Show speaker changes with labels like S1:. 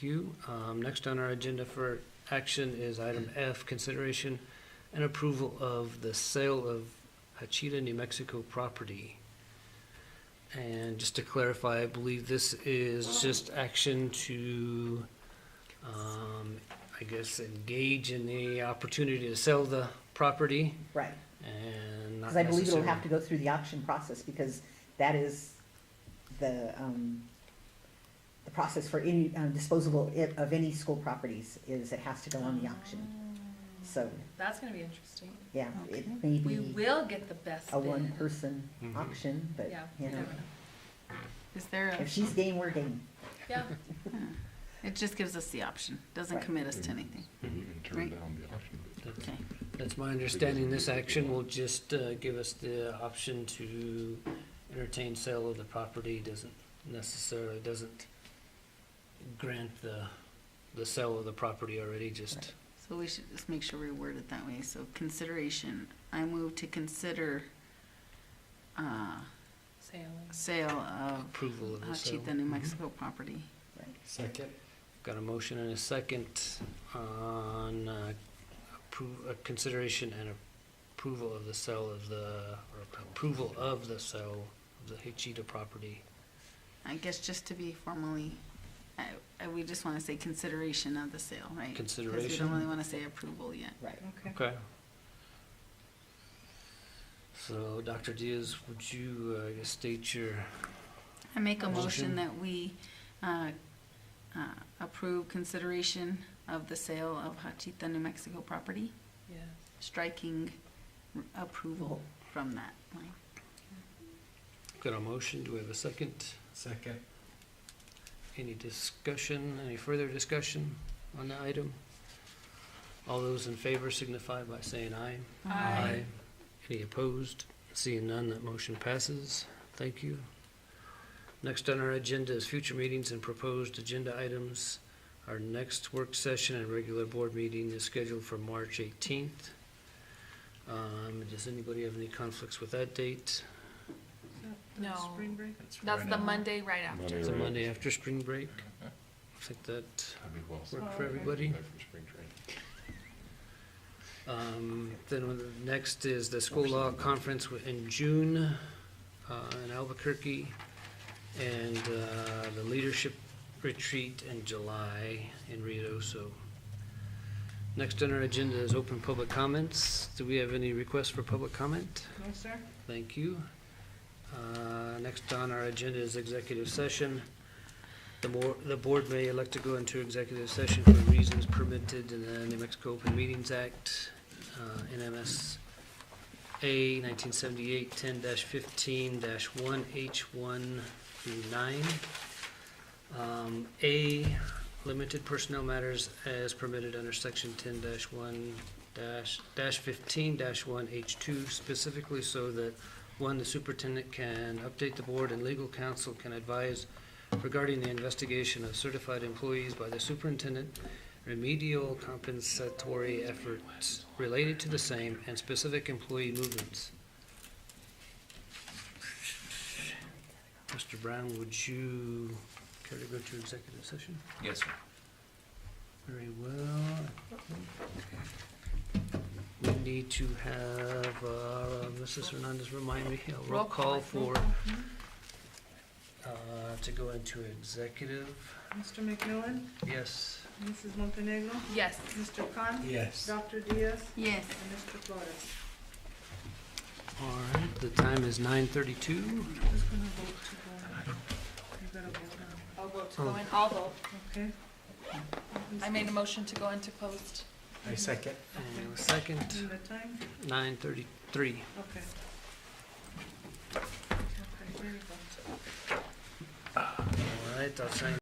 S1: Thank you. Um, Next on our agenda for action is item F, consideration and approval of the sale of Hachita, New Mexico property. And just to clarify, I believe this is just action to, um, I guess, engage in the opportunity to sell the property
S2: Right,
S1: and not
S2: because I believe it'll have to
S1: necessarily.
S2: go through the auction process, because that is the, um, the process for any um, disposable i- of any school properties, is it has to go on the auction. So,
S3: That's gonna be interesting.
S2: yeah, it
S4: Okay.
S2: may
S3: We
S2: be
S3: will get the best
S2: a
S3: bid.
S2: one-person
S1: Mhm.
S2: auction, but,
S3: Yeah,
S2: you
S3: we
S2: know,
S3: never know.
S4: Is there
S2: if she's game, we're game.
S3: Yeah,
S4: a, it just gives us the option, doesn't
S2: Right.
S4: commit us
S1: Mm-hmm.
S4: to anything.
S5: And we can turn
S4: Right.
S5: down the option.
S4: Okay,
S1: That's my understanding. This action will just uh, give us the option to entertain sale of the property. Doesn't necessarily, doesn't grant the, the sale of the property already, just,
S4: so we should just make sure we word it that way, so consideration, I move to consider, uh,
S3: sailing.
S4: sale of
S1: Approval of the sale. Mm-hmm.
S4: Hachita, New Mexico property.
S6: Second.
S1: got a motion and a second on uh, appro- uh, consideration and approval of the sale of the, or approval of the sale of the Hachita property.
S4: I guess just to be formally, I, I, we just wanna say consideration of the sale, right? 'Cause we
S1: Consideration.
S4: don't really wanna say approval yet.
S2: Right.
S3: Okay.
S1: Okay. So, Dr. Diaz, would you, uh, I guess, state your,
S4: I make a
S1: Motion.
S4: motion that we uh, uh, approve consideration of the sale of Hachita, New Mexico property,
S3: Yeah.
S4: striking approval from that line.
S1: got a motion, do we have a second?
S6: Second.
S1: Any discussion, any further discussion on the item? All those in favor signify by saying aye.
S3: Aye.
S1: Any opposed? Seeing none, that motion passes. Thank you. Next on our agenda is future meetings and proposed agenda items. Our next work session and regular board meeting is scheduled for March 18th. Um, Does anybody have any conflicts with that date?
S3: No.
S7: Spring break?
S3: That's the
S4: now.
S3: Monday right after.
S1: It's a Monday after spring break. I think that
S5: That'd be well said.
S1: worked for everybody.
S5: Back from spring training.
S1: Um, Then the next is the school law conference wi- in June uh, in Albuquerque, and uh, the leadership retreat in July in Rio. So next on our agenda is open public comments. Do we have any requests for public comment?
S7: No, sir?
S1: Thank you. Uh, Next on our agenda is executive session. The more, the board may elect to go into executive session for reasons permitted in the New Mexico Open Meetings Act, uh, NMSA 1978, 10-15-1H1 through 9. Um, A, limited personnel matters as permitted under section 10-1 dash, dash fifteen dash one H two specifically so that, one, the superintendent can update the board and legal counsel can advise regarding the investigation of certified employees by the superintendent, remedial compensatory efforts related to the same and specific employee movements. Mr. Brown, would you care to go to executive session?
S8: Yes, sir.
S1: Very well. We need to have, uh, Mrs. Hernandez remind me, a roll
S3: Roll
S1: call
S3: call.
S1: for, uh, to go into executive.
S7: Mr. McMillan?
S1: Yes,
S7: Mrs. Montenegro?
S3: Yes.
S7: Mr. Khan?
S6: Yes.
S7: Dr. Diaz?
S4: Yes.
S7: And Mr. Flores?
S1: all right, the time is nine thirty-two.
S7: Who's gonna vote to go? You gotta vote now,
S3: I'll vote to
S1: Oh.
S3: go in, I'll vote.
S7: okay?
S3: I made a motion to go into closed.
S6: I second.
S1: And a second,
S7: And the time?
S1: nine thirty-three.
S7: Okay. Okay, there you go.
S1: All right, I'll sign